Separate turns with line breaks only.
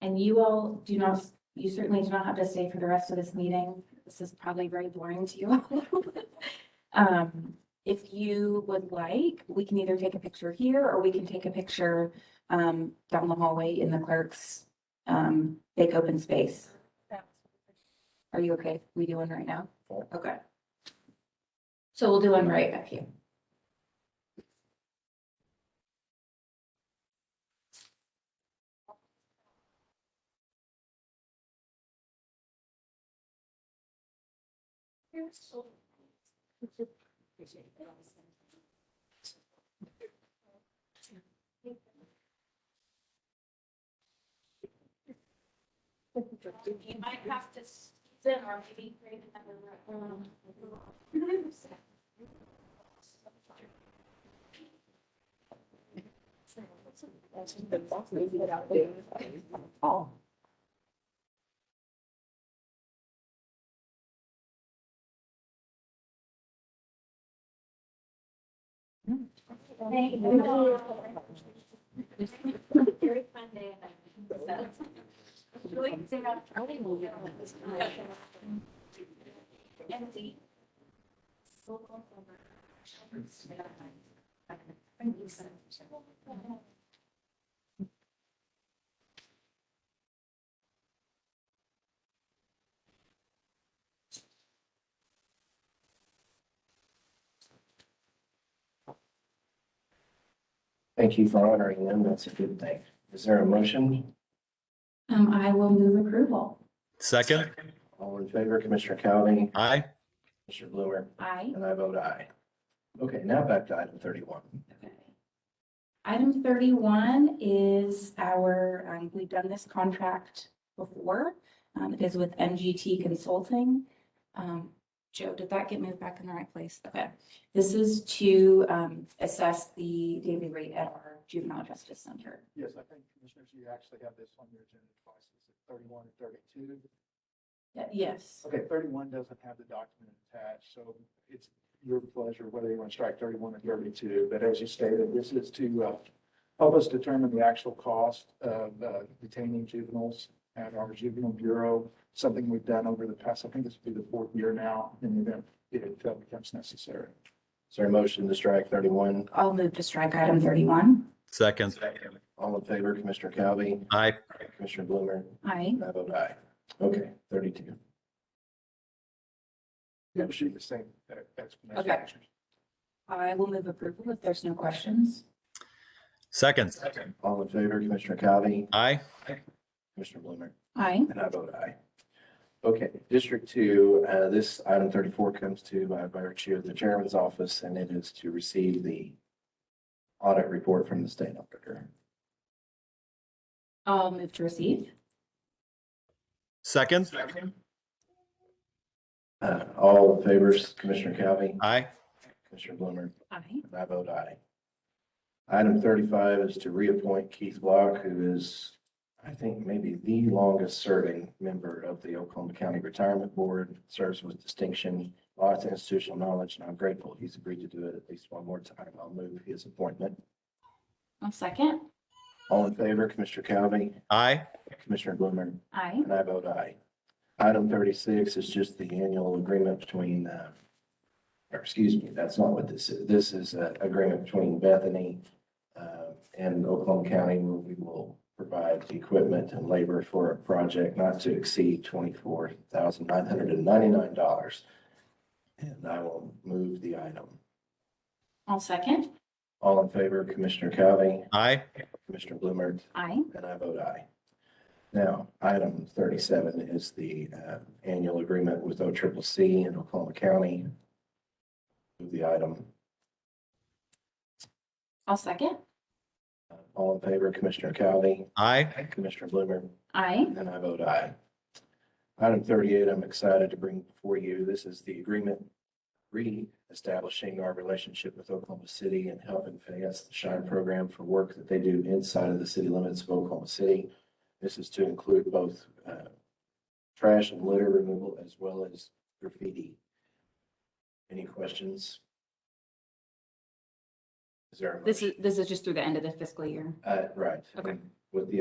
And you all do not, you certainly do not have to stay for the rest of this meeting. This is probably very boring to you. all. Um, if you would like, we can either take a picture here or we can take a picture um down the hallway in the clerk's um big open space. Are you okay? if We do one right now?
Sure.
Okay. So we'll do one right up here.
You might have to sit or maybe create another room. Very fun day. Empty.
Thank you for honoring them. That's a good thing. Is there a motion?
Um, I will move approval.
Second,
All in favor, Commissioner Cowan,
aye.
Commissioner Blumer,
Aye.
and I vote aye. Okay, now back to item thirty-one.
Okay. Item thirty-one is our, um, we've done this contract before. Um, it is with MGT Consulting. Um, Joe, did that get moved back in the right place? Okay. This is to, um, assess the daily rate at our juvenile justice center.
Yes, I think commissioners, you actually have this on your agenda twice, is it thirty-one and thirty-two?
Yeah, Yes.
Okay, thirty-one doesn't have the document attached, so it's your pleasure whether you want to strike thirty-one or thirty-two. But as you stated, this is to uh, help us determine the actual cost of uh, detaining juveniles at our juvenile bureau, something we've done over the past, I think this will be the fourth year now, in the event it uh, becomes necessary.
Is there a motion to strike thirty-one?
I'll move to strike item thirty-one.
Second,
All in favor, Commissioner Cowan,
aye.
Commissioner Blumer,
Aye.
and I vote aye. Okay, thirty-two.
You have to shoot the same uh, explanation.
Okay. I will move approval if there's no questions.
Second,
All in favor, Commissioner Cowan,
aye.
Commissioner Blumer,
Aye.
and I vote aye. Okay, District Two, uh, this item thirty-four comes to by virtue of the Chairman's office, and it is to receive the audit report from the state auditor.
I'll move to receive.
Second,
Uh, all in favor, Commissioner Cowan,
aye.
Commissioner Blumer,
Aye.
and I vote aye. Item thirty-five is to reappoint Keith Block, who is, I think, maybe the longest-serving member of the Oklahoma County Retirement Board, serves with distinction, lots of institutional knowledge, and I'm grateful he's agreed to do it at least one more time. I'll move his appointment.
I'll second.
All in favor, Commissioner Cowan,
Aye.
Commissioner Blumer,
Aye.
And I vote aye. oh Item thirty-six is just the annual agreement between, uh, or excuse me, that's not what this is. This is an agreement between Bethany uh, and Oklahoma County where we will provide the equipment and labor for a project not to exceed twenty-four thousand nine hundred and ninety-nine dollars. And I will move the item.
I'll second.
All in favor, Commissioner Cowan,
Aye.
Commissioner Blumer,
Aye.
and I vote aye. Now, item thirty-seven is the uh, annual agreement with O triple C in Oklahoma County. Move the item.
I'll second.
Uh, All in favor, Commissioner Cowan,
Aye.
Commissioner Blumer,
Aye.
and I vote aye. Item thirty-eight, I'm excited to bring before you. This is the agreement re-establishing our relationship with Oklahoma City and helping finance the SHINE program for work that they do inside of the city limits of Oklahoma City. This is to include both uh, trash and litter removal as well as graffiti. Any questions? Is there? a
This
motion?
is, this is just through the end of the fiscal year.
Uh, right.
Okay.
With the